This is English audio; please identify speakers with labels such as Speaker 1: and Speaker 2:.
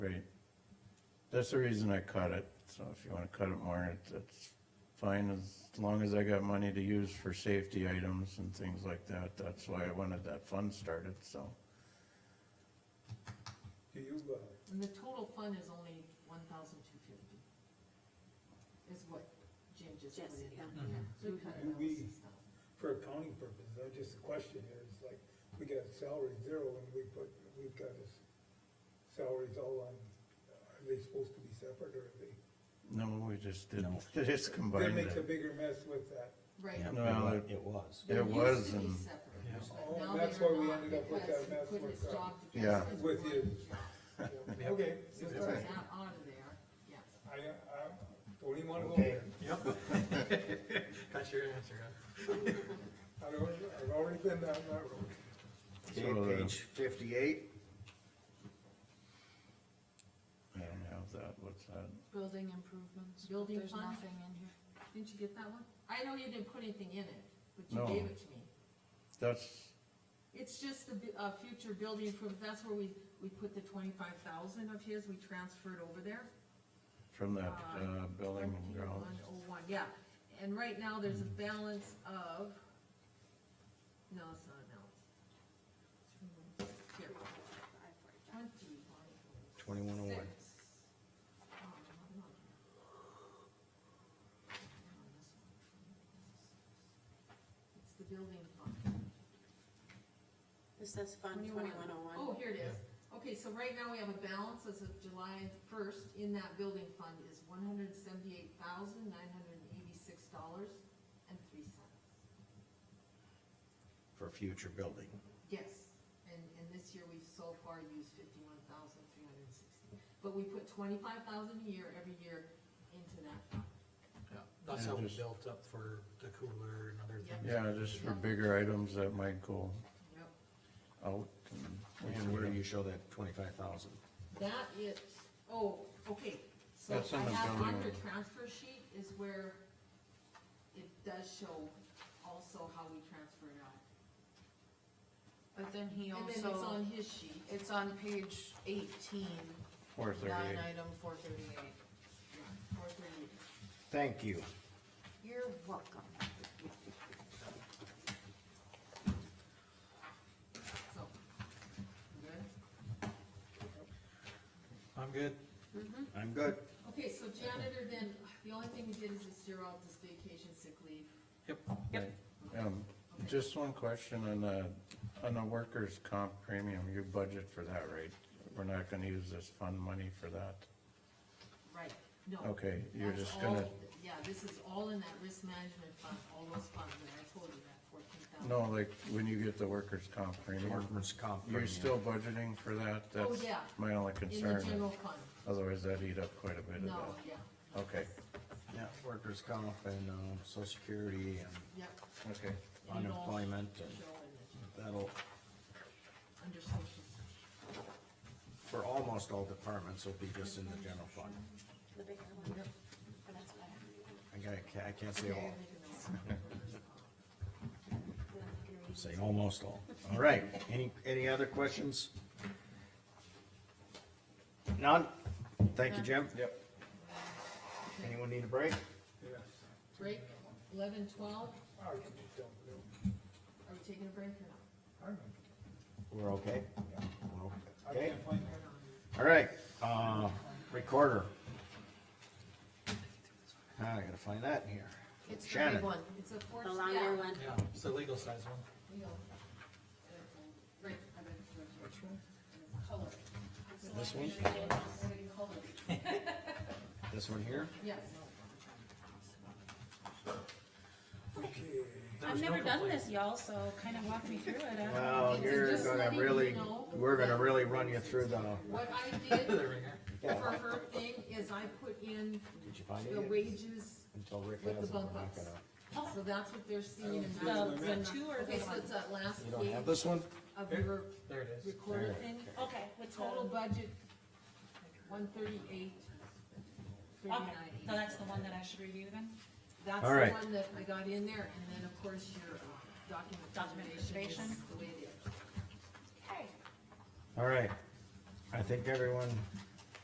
Speaker 1: Right. That's the reason I cut it, so if you wanna cut it more, it- that's fine, as long as I got money to use for safety items and things like that, that's why I wanted that fund started, so.
Speaker 2: Do you, uh,
Speaker 3: And the total fund is only one thousand two fifty. Is what Jim just put
Speaker 4: Just,
Speaker 3: in.
Speaker 4: yeah.
Speaker 1: Mm-hmm.
Speaker 3: Yeah, so we cut
Speaker 2: And we-
Speaker 3: balances down.
Speaker 2: for accounting purposes, I just, the question here is like, we got salary zero and we put, we've got his salaries all on, are they supposed to be separate or are they?
Speaker 1: No, we just
Speaker 5: No.
Speaker 1: didn't, just
Speaker 2: That
Speaker 1: combined
Speaker 2: makes a
Speaker 1: it.
Speaker 2: bigger mess with that.
Speaker 3: Right.
Speaker 5: Yeah,
Speaker 1: No, I-
Speaker 5: it was.
Speaker 3: They
Speaker 1: It
Speaker 3: used
Speaker 1: was
Speaker 3: to be
Speaker 1: and-
Speaker 3: separate,
Speaker 5: Yeah.
Speaker 3: but
Speaker 2: Oh,
Speaker 3: now
Speaker 2: that's
Speaker 3: they're
Speaker 2: why we
Speaker 3: not
Speaker 2: ended up with
Speaker 3: because
Speaker 2: that mess
Speaker 3: he put
Speaker 2: with
Speaker 3: his
Speaker 2: that.
Speaker 3: job
Speaker 1: Yeah.
Speaker 3: together as
Speaker 2: With
Speaker 3: one
Speaker 2: you.
Speaker 3: job.
Speaker 2: Yeah, Okay,
Speaker 3: So
Speaker 2: that's
Speaker 3: it's
Speaker 2: all right.
Speaker 3: not out of there, yeah.
Speaker 2: I, I don't even wanna go there.
Speaker 6: Yep. Got your answer, huh?
Speaker 2: I've already, I've already been down that road.
Speaker 1: So, uh,
Speaker 5: Okay, page fifty-eight,
Speaker 1: I don't have that, what's that?
Speaker 4: Building improvements.
Speaker 3: Building
Speaker 4: There's
Speaker 3: fund?
Speaker 4: nothing in here.
Speaker 3: Didn't you get that one? I know you didn't put anything in it, but you
Speaker 1: No.
Speaker 3: gave it to me.
Speaker 1: That's,
Speaker 3: It's just the, bu- uh, future building improvement, that's where we, we put the twenty-five thousand of his, we transferred over there.
Speaker 1: from that, uh, building and grounds,
Speaker 3: One oh one, yeah, and right now there's a balance of, no, it's not a balance. Here, twenty-one.
Speaker 5: twenty-one oh one.
Speaker 3: Six. Oh, another one. It's the building fund.
Speaker 4: This says Fund
Speaker 3: 21.
Speaker 4: twenty-one oh one.
Speaker 3: Oh, here it is. Okay, so right now we have a balance as of July first in that building fund is one hundred seventy-eight thousand, nine hundred and eighty-six dollars and three cents.
Speaker 5: For future building.
Speaker 3: Yes, and, and this year we've so far used fifty-one thousand, three hundred and sixty. But we put twenty-five thousand a year every year into that fund.
Speaker 6: Yeah, that's
Speaker 1: And
Speaker 6: how we
Speaker 1: just-
Speaker 6: built up for the cooler and other
Speaker 3: Yeah.
Speaker 6: things.
Speaker 1: yeah, just for bigger items that might go
Speaker 3: Yep.
Speaker 1: out. and-
Speaker 5: And where do you show that twenty-five thousand?
Speaker 3: That is, oh, okay, so
Speaker 1: That's on
Speaker 3: I
Speaker 1: the
Speaker 3: have
Speaker 1: building.
Speaker 3: on your transfer sheet is where it does show also how we transfer it out.
Speaker 4: But then he
Speaker 3: And then it's on
Speaker 4: also,
Speaker 3: his sheet,
Speaker 4: it's on page eighteen,
Speaker 1: Four
Speaker 4: line
Speaker 1: thirty-eight,
Speaker 4: item four thirty-eight.
Speaker 3: yeah, four thirty.
Speaker 5: Thank you.
Speaker 4: You're welcome.
Speaker 3: so. Good?
Speaker 6: I'm good.
Speaker 5: I'm good.
Speaker 3: Okay, so janitor then, the only thing we did is just zero out this vacation sick leave.
Speaker 6: Yep.
Speaker 1: um,
Speaker 3: Okay.
Speaker 1: Just one question on the, on the workers' comp premium, you budget for that, right? We're not gonna use this fund money for that?
Speaker 3: Right, no.
Speaker 1: Okay, you're
Speaker 3: That's
Speaker 1: just gonna,
Speaker 3: all- Yeah, this is all in that risk management fund, all those funds, and I told you that fourteen thousand.
Speaker 1: no, like, when you get the workers' comp premium,
Speaker 5: Workman's comp.
Speaker 1: you're
Speaker 5: premium.
Speaker 1: still budgeting for that? That's
Speaker 3: Oh, yeah.
Speaker 1: my only
Speaker 3: In the
Speaker 1: concern,
Speaker 3: general fund,
Speaker 1: otherwise that'd eat up quite a bit of
Speaker 3: no,
Speaker 1: that.
Speaker 3: yeah,
Speaker 1: Okay,
Speaker 5: Yeah, workers' comp and, um, social security and
Speaker 3: yep.
Speaker 1: okay,
Speaker 3: And it all
Speaker 5: unemployment
Speaker 3: should
Speaker 5: and
Speaker 3: show in the-
Speaker 5: that'll,
Speaker 3: Under social, security.
Speaker 5: for almost all departments, will be just in the general fund.
Speaker 4: The bigger one, but that's what I have.
Speaker 5: I gotta, ca- I can't say all,
Speaker 3: Make a note.
Speaker 4: Then I can read.
Speaker 5: say almost all. All right, any, any other questions? None? Thank you, Jim. Yep. Anyone need a break?
Speaker 2: Yeah,
Speaker 3: Break, eleven, twelve,
Speaker 2: I can just dump it.
Speaker 3: are we taking a break or not?
Speaker 2: I don't know.
Speaker 5: We're okay?
Speaker 2: I
Speaker 5: Okay,
Speaker 2: can't find that.
Speaker 3: Or not?
Speaker 5: all right, uh, recorder. Now I gotta find that in here.
Speaker 4: It's the
Speaker 5: Shannon.
Speaker 4: big one,
Speaker 3: It's a fourth,
Speaker 4: the
Speaker 3: yeah.
Speaker 4: longer one.
Speaker 6: Yeah, it's the legal size one.
Speaker 3: we all- Right, I bet it's. Which one? Color.
Speaker 5: This one? This one here?
Speaker 3: Yes.
Speaker 6: There was no complaint.
Speaker 4: y'all, so kind of walk me through it. I don't know.
Speaker 5: Well,
Speaker 3: Uh, It's
Speaker 5: you're
Speaker 3: just
Speaker 5: gonna
Speaker 3: letting you
Speaker 5: really,
Speaker 3: know
Speaker 5: we're gonna
Speaker 3: that-
Speaker 5: really run you through the,
Speaker 3: What I did
Speaker 6: There we go.
Speaker 3: for her thing is I put in
Speaker 5: did you find it?
Speaker 3: the
Speaker 5: yet?
Speaker 3: wages,
Speaker 5: Until Rick
Speaker 3: with
Speaker 5: has
Speaker 3: the
Speaker 5: it, we're
Speaker 3: bump
Speaker 5: not
Speaker 3: ups.
Speaker 5: gonna.
Speaker 3: so that's what they're seeing in
Speaker 2: The-
Speaker 3: that.
Speaker 2: the
Speaker 4: two or
Speaker 3: Okay,
Speaker 4: the
Speaker 3: so
Speaker 4: one?
Speaker 3: it's that last
Speaker 5: You don't have
Speaker 3: page
Speaker 5: this one?
Speaker 3: of your
Speaker 6: There it is.
Speaker 3: recorded
Speaker 5: There.
Speaker 3: thing,
Speaker 4: Okay, what's
Speaker 3: total budget, one thirty-eight,
Speaker 7: Okay,
Speaker 3: thirty-nine.
Speaker 7: so that's the one that I should review then?
Speaker 3: That's
Speaker 5: All right.
Speaker 3: the one that I got in there, and then, of course, your uh, document
Speaker 7: Document
Speaker 3: preservation is
Speaker 7: preservation.
Speaker 3: the way it is.
Speaker 7: Okay.
Speaker 5: All right, I think everyone